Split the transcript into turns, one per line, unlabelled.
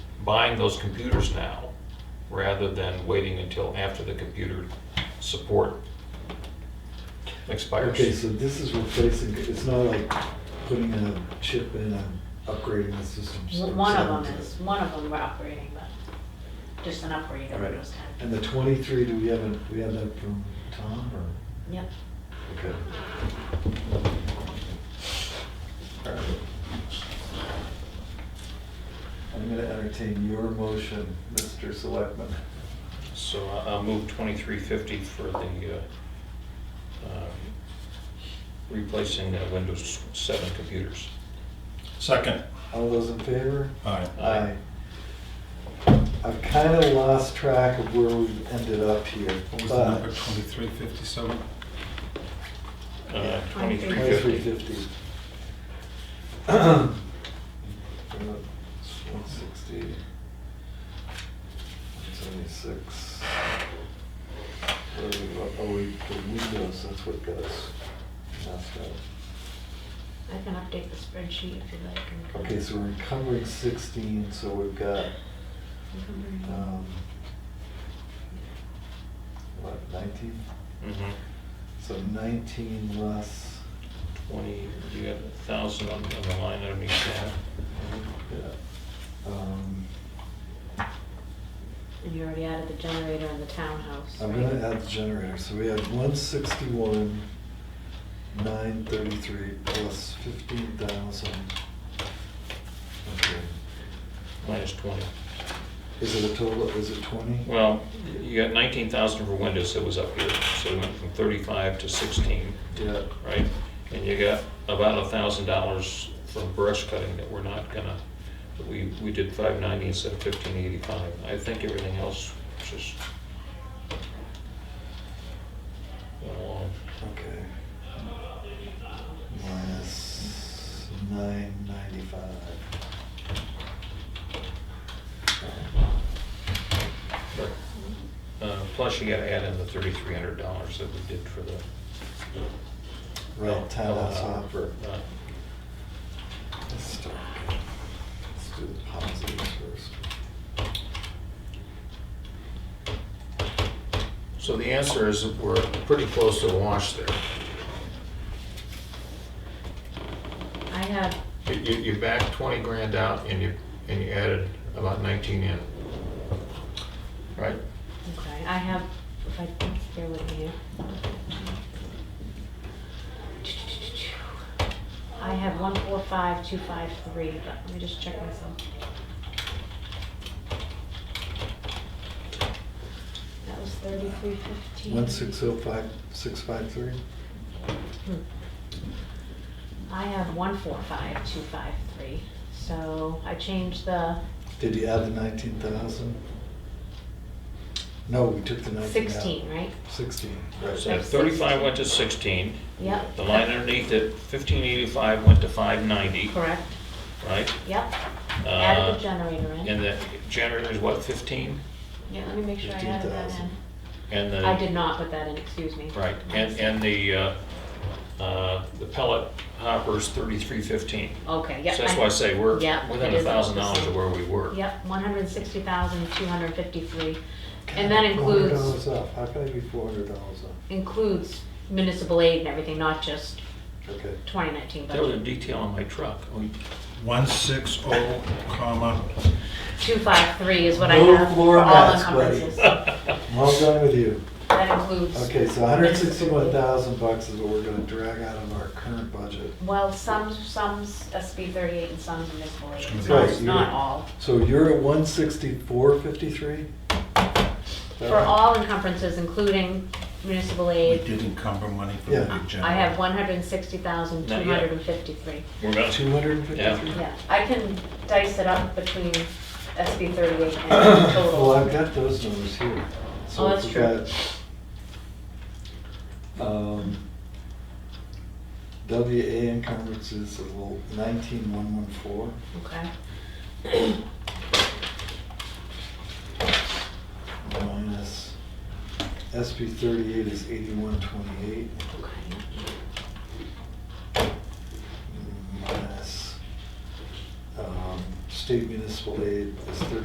buying those computers now rather than waiting until after the computer support expires.
Okay, so this is replacing, it's not like putting a chip in and upgrading the system. so
Well, One of
it's-
them is, one of them we're upgrading, but just an upgrade over
Right.
those time.
And the twenty-three, do we have, a- we have that from Tom or?
Yep.
Okay. I'm gonna entertain your motion, Mr. Selectman.
So I- I'll move twenty-three fifty for the, uh, um, replacing uh, Windows seven computers.
Second.
All those in favor?
Aye.
Aye.
I've kind of lost track of where we've ended up here.
What was the
but-
number, 2357?
Uh, twenty-three
Twenty-three
fifty.
fifty. One sixty. Seventy-six. Where are we go- Oh, we, the windows, that's what got us. messed up.
I can update the spreadsheet if you'd like.
Okay, so we're encumbering sixteen, so we've got, um, what, nineteen?
Mhm.
So nineteen less,
Twenty, you got a thousand on on the line underneath that.
yeah. Um,
And you already added the generator in the townhouse.
I'm
right?
gonna add the generator, so we have one sixty-one, nine thirty-three plus fifteen thousand. Okay.
minus twenty.
Is it a total, is it twenty?
Well, you got nineteen thousand for Windows that was up here, so it went from thirty-five to sixteen,
Yeah,
right? And you got about a thousand dollars from brush cutting that we're not gonna, we, we did five ninety instead of fifteen eighty-five. I think everything else just went along.
okay. Minus nine ninety-five.
But, uh, plus you gotta add in the thirty-three hundred dollars that we did for the.
Right, townhouse offer.
Uh,
Let's start. Let's do the positives first.
So the answer is that we're pretty close to a wash there.
I have,
You, you you backed 20 grand out and you, and you added about 19 in. Right?
okay, I have, if I, bear with me here. I have one four five two five three, but let me just check myself. That was thirty-three fifteen.
One six oh five, six five three?
Hmm. I have one four five two five three, so I changed the
Did you add the nineteen thousand? No, we took the nineteen out.
sixteen, right?
Sixteen,
So
right.
That's
35
16.
went to 16.
Yep.
The line underneath it, 1585 went to 590,
Correct,
right?
yep, added
Uh,
the generator in.
And the generator is what, 15?
Yeah, let me make sure I added that
15,000.
in.
And the.
I did not put that in, excuse me.
Right, and, and the, uh, uh, the pellet hopper's 3315.
Okay, yep.
So that's
I-
why I say we're
Yep,
within
it
a
is about
thousand
the
dollars
same.
of where we were.
Yep, one hundred and sixty thousand, two hundred and fifty-three, and that includes,
Four hundred dollars off, how can I be four hundred dollars off?
includes municipal aid and everything, not just
Okay,
twenty nineteen
There was a
budget.
detail on my truck. Oh, you-
160, oh, comma,
Two five three is what I
Move
have for
Laura
all
Matt's buddy.
encumbrances.
well done with you.
That includes.
Okay, so hundred and sixty-one thousand bucks is what we're gonna drag out of our current budget.
Well, some, some's SB thirty-eight and some's municipal aid,
Some's
so
Right,
it's
you're-
not all.
So you're at one sixty-four fifty-three?
For all encumbrances, including municipal
we
aid,
did encumber money for the
Yeah.
big generator.
I have one hundred and sixty thousand, two hundred and fifty-three.
We're gonna,
Two hundred and fifty-three?
Yeah, I can dice it up between SB thirty-eight and
Well, I've
total.
got those numbers here. So
Oh, that's
we've
true.
got, um, WA encumbrances is nineteen one one four.
Okay,
minus SB thirty-eight is eighty-one twenty-eight,
okay,
minus um, state municipal aid is thirty